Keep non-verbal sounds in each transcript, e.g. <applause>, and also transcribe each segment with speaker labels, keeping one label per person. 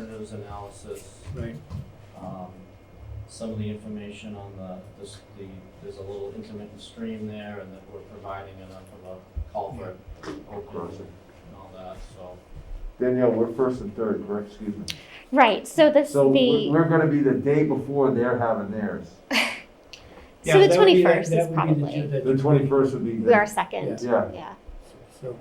Speaker 1: numbers analysis,
Speaker 2: Right,
Speaker 1: um, some of the information on the, this, the, there's a little intermittent stream there and that we're providing enough of a culvert open
Speaker 3: Crossing.
Speaker 1: and all that, so.
Speaker 3: Danielle, we're first and third, correct, excuse me.
Speaker 4: Right, so this,
Speaker 3: So we're,
Speaker 4: the,
Speaker 3: we're gonna be the day before they're having theirs.
Speaker 4: so
Speaker 2: Yeah,
Speaker 4: the
Speaker 2: that would be the-
Speaker 4: twenty-first is
Speaker 2: that would be the ju-
Speaker 4: probably,
Speaker 3: The twenty-first would be.
Speaker 4: we are
Speaker 3: the
Speaker 4: second,
Speaker 3: Yeah,
Speaker 4: yeah.
Speaker 2: So,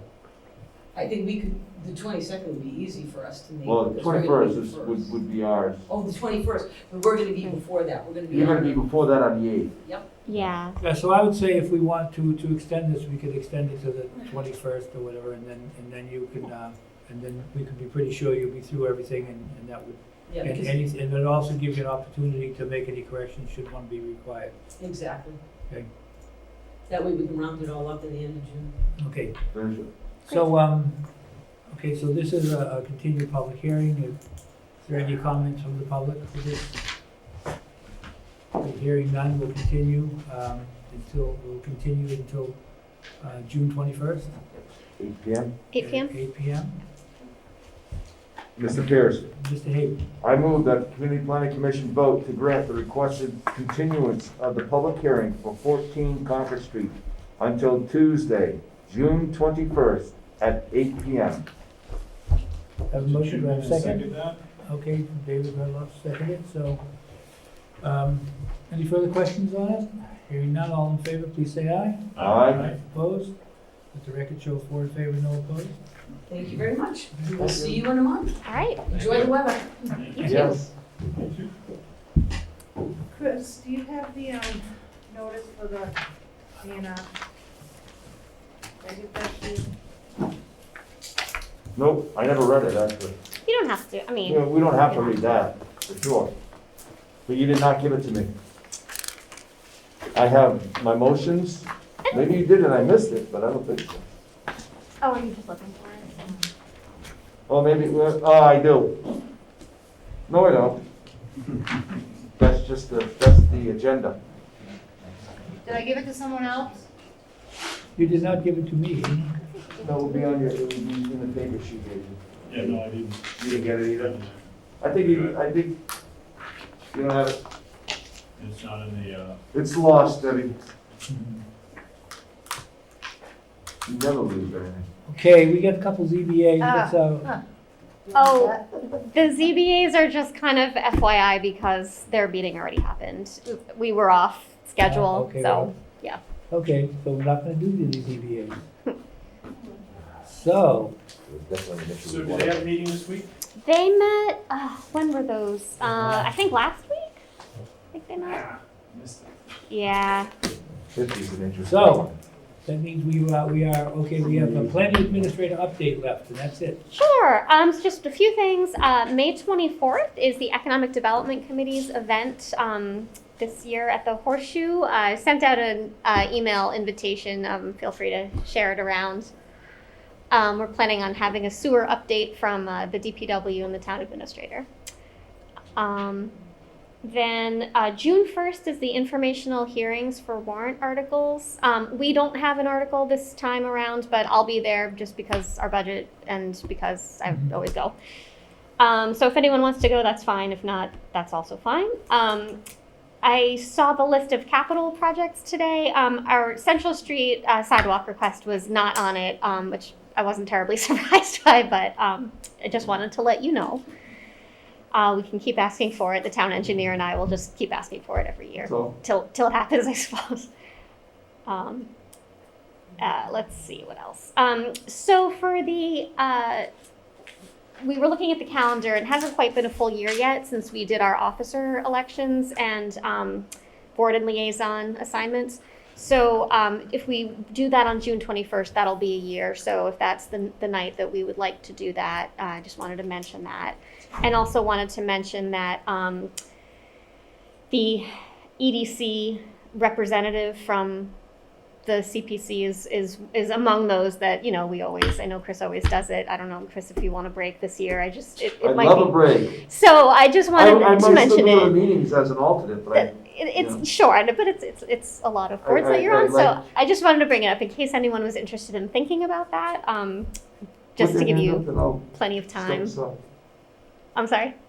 Speaker 5: I think we could, the twenty-second would be easy for us to make.
Speaker 3: well, the
Speaker 5: because we're gonna
Speaker 3: twenty-first
Speaker 5: be
Speaker 3: is,
Speaker 5: first.
Speaker 3: would, would be ours.
Speaker 5: Oh, the twenty-first, but we're gonna be before that, we're gonna be.
Speaker 3: You're gonna
Speaker 5: on-
Speaker 3: be before that on the eighth.
Speaker 4: Yeah,
Speaker 2: yeah, so I would say if we want to, to extend this, we could extend it to the twenty-first or whatever, and then, and then you could, uh, and then we could be pretty sure you'll be through everything and, and that would,
Speaker 5: Yeah,
Speaker 2: and,
Speaker 5: because-
Speaker 2: and it's- and it also gives you an opportunity to make any corrections should one be required.
Speaker 5: exactly.
Speaker 2: Okay.
Speaker 5: That way we can round it all up at the end of June.
Speaker 2: Okay,
Speaker 3: There's-
Speaker 2: so, um, okay, so this is a, a continued public hearing. Is there any comments from the public for this? Okay, Hearing none, we'll continue, um, until, we'll continue until, uh, June twenty-first.
Speaker 3: Eight P M.
Speaker 4: eight PM?
Speaker 2: Eight P M.
Speaker 3: Mr. Pierce.
Speaker 2: Mr. Hayden,
Speaker 3: I move that the Community Planning Commission vote to grant the requested continuance of the public hearing for 14 Concord Street until Tuesday, June 21st at 8 PM.
Speaker 2: have a motion, do I have a second?
Speaker 6: that?
Speaker 2: Okay, David Redlove seconded, so, um, any further questions on it? Hearing none, all in favor, please say aye.
Speaker 3: Aye.
Speaker 2: Opposed? Let the record show four in favor, no opposed.
Speaker 5: Thank you very much. We'll see you in a month.
Speaker 4: All right,
Speaker 5: Enjoy the weather.
Speaker 4: you too.
Speaker 3: Yes.
Speaker 7: Chris, do you have the, um, notice for the A and R? Did I get that to you?
Speaker 3: Nope, I never read it, actually.
Speaker 4: You don't have to, I mean,
Speaker 3: Yeah, We don't have to read that, for sure. But you did not give it to me. I have my motions. Maybe you did and I missed it, but I don't think so.
Speaker 4: oh, are you just looking for it?
Speaker 3: Oh, maybe, well, oh, I do. No, I don't. That's just the, that's the agenda.
Speaker 7: Did I give it to someone else?
Speaker 2: You did not give it to me.
Speaker 3: That will be on your, it will be in the paper she gave you.
Speaker 6: Yeah, no, I didn't.
Speaker 3: You didn't get it either? I think you, I think, you don't have it.
Speaker 6: It's not in the, uh,
Speaker 3: It's lost, Debbie. You never lose anything.
Speaker 2: Okay, we got a couple ZBA,
Speaker 7: Ah.
Speaker 2: that's, uh,
Speaker 4: Oh, the ZBAs are just kind of FYI because their meeting already happened. We were off schedule,
Speaker 2: okay,
Speaker 4: so,
Speaker 2: well. okay, so we're not gonna do the ZBA. So,
Speaker 6: so do they have a meeting this week?
Speaker 4: They met. Uh, when were those? Uh, I think last week. I think they met.
Speaker 6: Missed it.
Speaker 4: Yeah.
Speaker 3: Fifty's an interesting.
Speaker 2: So-
Speaker 3: one.
Speaker 2: that means we are, we are, okay, we have a planning administrator update left, and that's it.
Speaker 4: Sure. Um, so just a few things. Uh, May 24th is the Economic Development Committee's event um, this year at the Horseshoe. I sent out an uh, email invitation. Um, feel free to share it around. Um, we're planning on having a sewer update from uh, the DPW and the town administrator. Um, then uh, June 1st is the informational hearings for warrant articles. Um, we don't have an article this time around, but I'll be there just because our budget and because I
Speaker 2: Mhm.
Speaker 4: always go. Um, so if anyone wants to go, that's fine. If not, that's also fine. Um, I saw the list of capital projects today. Um, our Central Street uh, sidewalk request was not on it, um, which I wasn't terribly <laughs> surprised by, but um, I just wanted to let you know. Uh, we can keep asking for it. The town engineer and I will just keep asking for it every year
Speaker 3: So,
Speaker 4: till till it happens, <laughs> I suppose. Um, uh, let's see what else. Um, so for the uh, we were looking at the calendar. It hasn't quite been a full year yet since we did our officer elections and um, board and liaison assignments. So um, if we do that on June 21st, that'll be a year. So if that's the, the night that we would like to do that, uh, I just wanted to mention that. And also wanted to mention that um, the EDC representative from the CPC is, is, is among those that, you know, we always, I know Chris always does it. I don't know, Chris, if you want to break this year, I just, it,
Speaker 3: I
Speaker 4: it might
Speaker 3: love a
Speaker 4: be.
Speaker 3: break.
Speaker 4: So I just
Speaker 3: I,
Speaker 4: wanted
Speaker 3: I
Speaker 4: to
Speaker 3: might still
Speaker 4: mention
Speaker 3: go to the
Speaker 4: it.
Speaker 3: meetings as an alternate, but I,
Speaker 4: It- It's short, but it's, it's, it's a lot of
Speaker 3: I-
Speaker 4: boards
Speaker 3: I-
Speaker 4: that you're
Speaker 3: I
Speaker 4: on,
Speaker 3: like-
Speaker 4: so I just wanted to bring it up in case anyone was interested in thinking about that, um, just to give you plenty of time. I'm sorry?